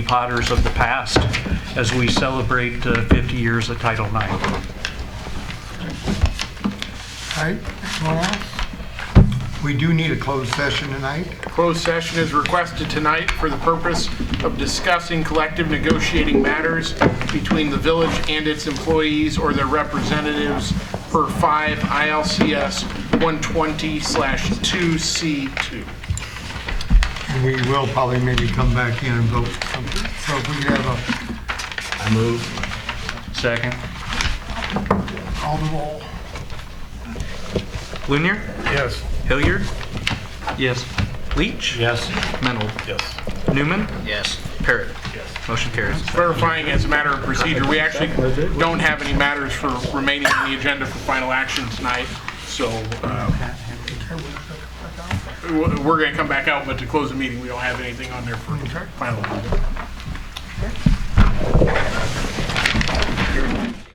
Potters of the past as we celebrate uh, 50 years of Title IX. All right, anyone else? We do need a closed session tonight. Closed session is requested tonight for the purpose of discussing collective negotiating matters between the village and its employees or their representatives per 5 ILCS 120/2C2. and We will probably maybe come back in and vote something. So if we could have Second. a call the roll. Lunier? Yes. Hilliard? Yes. Leach? Yes. Mennel? Yes. Newman? Yes. Parrot? Yes. Motion carries. Verifying as a matter of procedure, we actually don't have any matters for remaining on the agenda for final action tonight, so uh, w- we're going to come back out, but to close the meeting, we don't have anything on there for final.